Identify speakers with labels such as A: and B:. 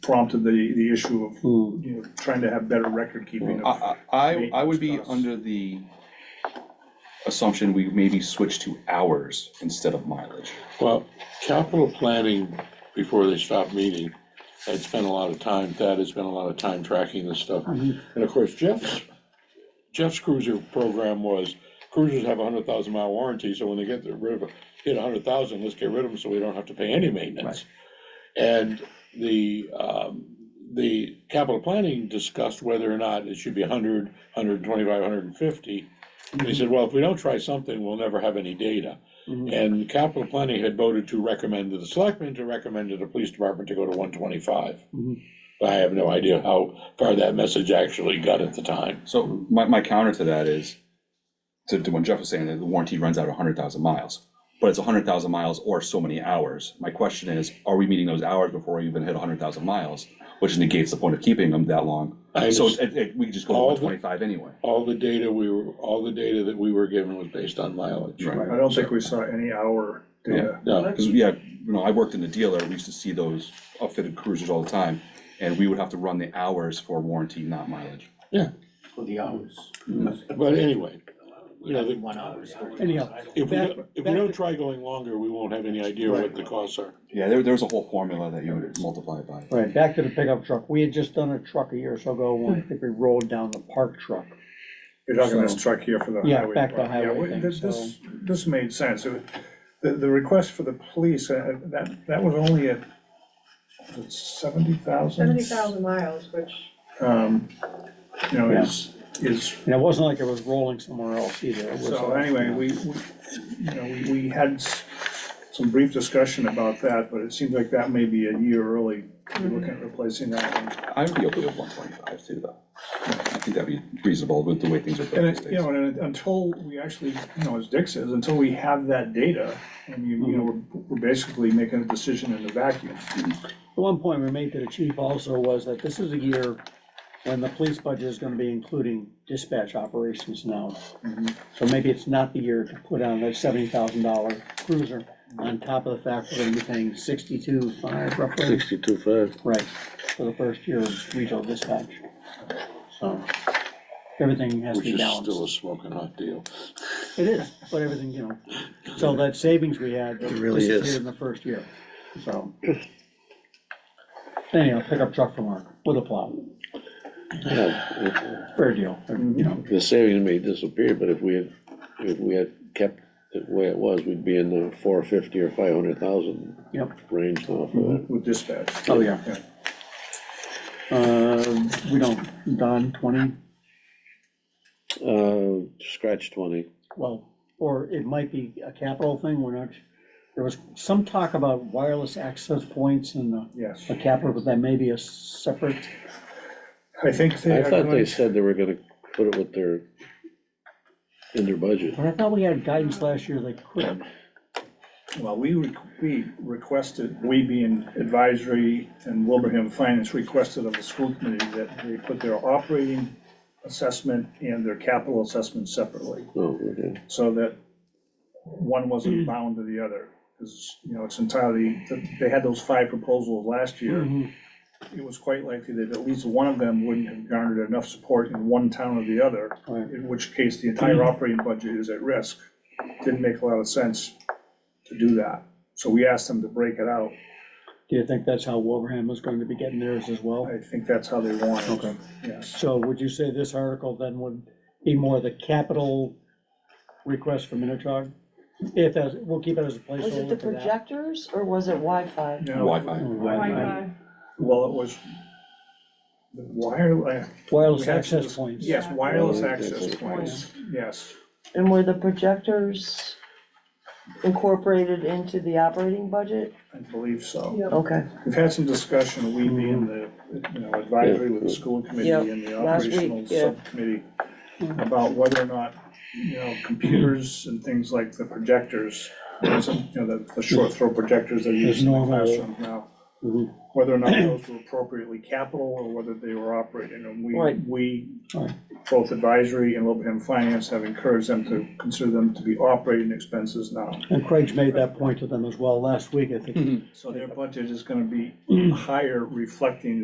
A: prompted the, the issue of,
B: Hmm.
A: you know, trying to have better record keeping. of-
C: I, I, I- I would be
A: Maintenance costs.
C: under the assumption we maybe switch to hours instead of mileage.
B: Well, capital planning, before they stopped meeting, had spent a lot of time, Thad has spent a lot of time tracking this stuff. And of course, Jeff's, Jeff's cruiser program was cruisers have a hundred thousand mile warranty, so when they get rid of, a- hit a hundred thousand, let's get rid of them so we don't have to pay any maintenance. And the, um, the capital planning discussed whether or not it should be a hundred, hundred and twenty-five, hundred and fifty. They said, well, if we don't try something, we'll never have any data. And capital planning had voted to recommend to the selectmen to recommend to the police department to go to one twenty-five.
D: Mhm.
B: I have no idea how far that message actually got at the time.
C: So my, my counter to that is, to, to when Jeff was saying that the warranty runs out hundred thousand miles, but it's hundred thousand miles or so many hours. My question is, are we meeting those hours before we even hit hundred thousand miles, which negates the point of keeping them that long?
B: I
C: So
B: just,
C: it, it, we could just go to
B: All
C: one
B: the-
C: twenty-five anyway.
B: all the data we were, all the data that we were given was based on mileage.
C: Right.
A: I don't think we saw any hour data.
B: No,
C: Because, yeah, you know, I worked in the dealer, we used to see those outfitted cruisers all the time, and we would have to run the hours for warranty, not mileage.
E: For the hours.
B: but anyway, you know, the-
E: One hour. is over.
D: Anyhow,
B: if we,
D: Back-
B: don't- if we
D: back-
B: don't try going longer, we won't have any idea what the costs are.
C: Yeah, there, there's a whole formula that you would multiply it by.
D: Right, back to the pickup truck. We had just done a truck a year or so ago, when I think we rolled down the park truck.
A: You're talking this truck here for the highway.
D: Yeah, back to
A: department. Yeah,
D: highway
A: we-
D: thing,
A: this- This, this made sense. It- The, the request for the police, uh, that, that was only at seventy thousand?
F: Seventy thousand miles, which,
A: Um, you know,
D: Yeah.
A: is, is
D: And it wasn't like it was rolling somewhere else either. It was,
A: So
D: uh,
A: anyway,
D: you know,
A: we, we, you know, we, we had s- some brief discussion about that, but it seems like that may be a year early, We're looking at replacing that one.
C: I would be okay with one twenty-five too, though. I think that'd be reasonable with the way things are
A: And
C: built these
A: it, you
C: days.
A: know, and it- until we actually, you know, as Dick says, until we have that data, I mean, you know, we're, we're basically making a decision in a vacuum.
D: The one point we made to the chief also was that this is a year when the police budget is gonna be including dispatch operations now.
A: Mhm.
D: So maybe it's not the year to put on that seventy thousand dollar cruiser on top of the fact we're gonna be paying sixty-two five roughly.
B: Sixty-two five.
D: Right, for the first year of regional dispatch. So, everything has to
B: Which
D: be
B: is still a
D: balanced.
B: smoking hot deal.
D: It is, but everything, you know, so that savings we had
G: really
D: disappeared
G: is.
D: in the first year, so. Anyhow, pickup truck from work with a plow,
G: Yeah,
D: fair deal, you know,
G: The savings may disappear, but if we had, if we had kept it the way it was, we'd be in the four fifty or five hundred thousand
D: yep,
G: range now for that.
A: With dispatch.
D: oh, yeah. Uh, we don't, Don, twenty,
G: Uh, scratch twenty,
D: well, or it might be a capital thing, we're not, there was some talk about wireless access points and the
A: Yes,
D: a capital, but that may be a separate,
A: I think they
G: I
A: are
G: thought they
A: going-
G: said they were gonna put it with their, in their budget.
D: but I thought we had guidance last year they could.
A: Well, we, re- we requested, we being advisory and Wilbraham Finance requested of the school committee that they put their operating assessment and their capital assessment separately,
G: Oh, okay.
A: so that one wasn't bound to the other. Because, you know, it's entirely, they had those five proposals last year. It was quite likely that at least one of them wouldn't have garnered enough support in one town or the other,
D: Right.
A: in which case the
D: Mm-hmm.
A: entire operating budget is at risk. Didn't make a lot of sense to do that. So we asked them to break it out.
D: Do you think that's how Wilbraham was going to be getting theirs as well?
A: I think that's how they want it,
D: Okay.
A: yes.
D: So would you say this article then would be more the capital request for Minotaur? If, as- we'll keep it as a
H: Was it the
D: placeholder for that.
H: projectors or was it Wi-Fi?
A: Now,
C: Wi-Fi.
D: Wi-Fi.
A: well, it was wireless,
D: Wireless
A: We had to
D: access
A: dis-
D: points.
A: yes, wireless
G: Wireless
A: access
G: access
A: points, yes.
H: And were the projectors incorporated into the operating budget?
A: I believe so.
F: you know,
H: Okay,
A: We've had some discussion, we being the, you know, advisory with the school committee
H: Yeah,
A: and the
H: last week,
A: operational
H: yeah.
A: subcommittee about whether or not, you know, computers and things like the projectors, some, you know, the, the short throw projectors that are
D: There's
A: used in the
D: normal-
A: classroom now.
D: Mhm.
A: Whether or not those were appropriately capital or whether they were operating, and we,
H: Right.
A: we,
D: Right.
A: both advisory and Wilbraham Finance have encouraged them to consider them to be operating expenses now.
D: And Craig's made that point to them as well last week, I think. Mm.
A: So their budget is gonna be higher reflecting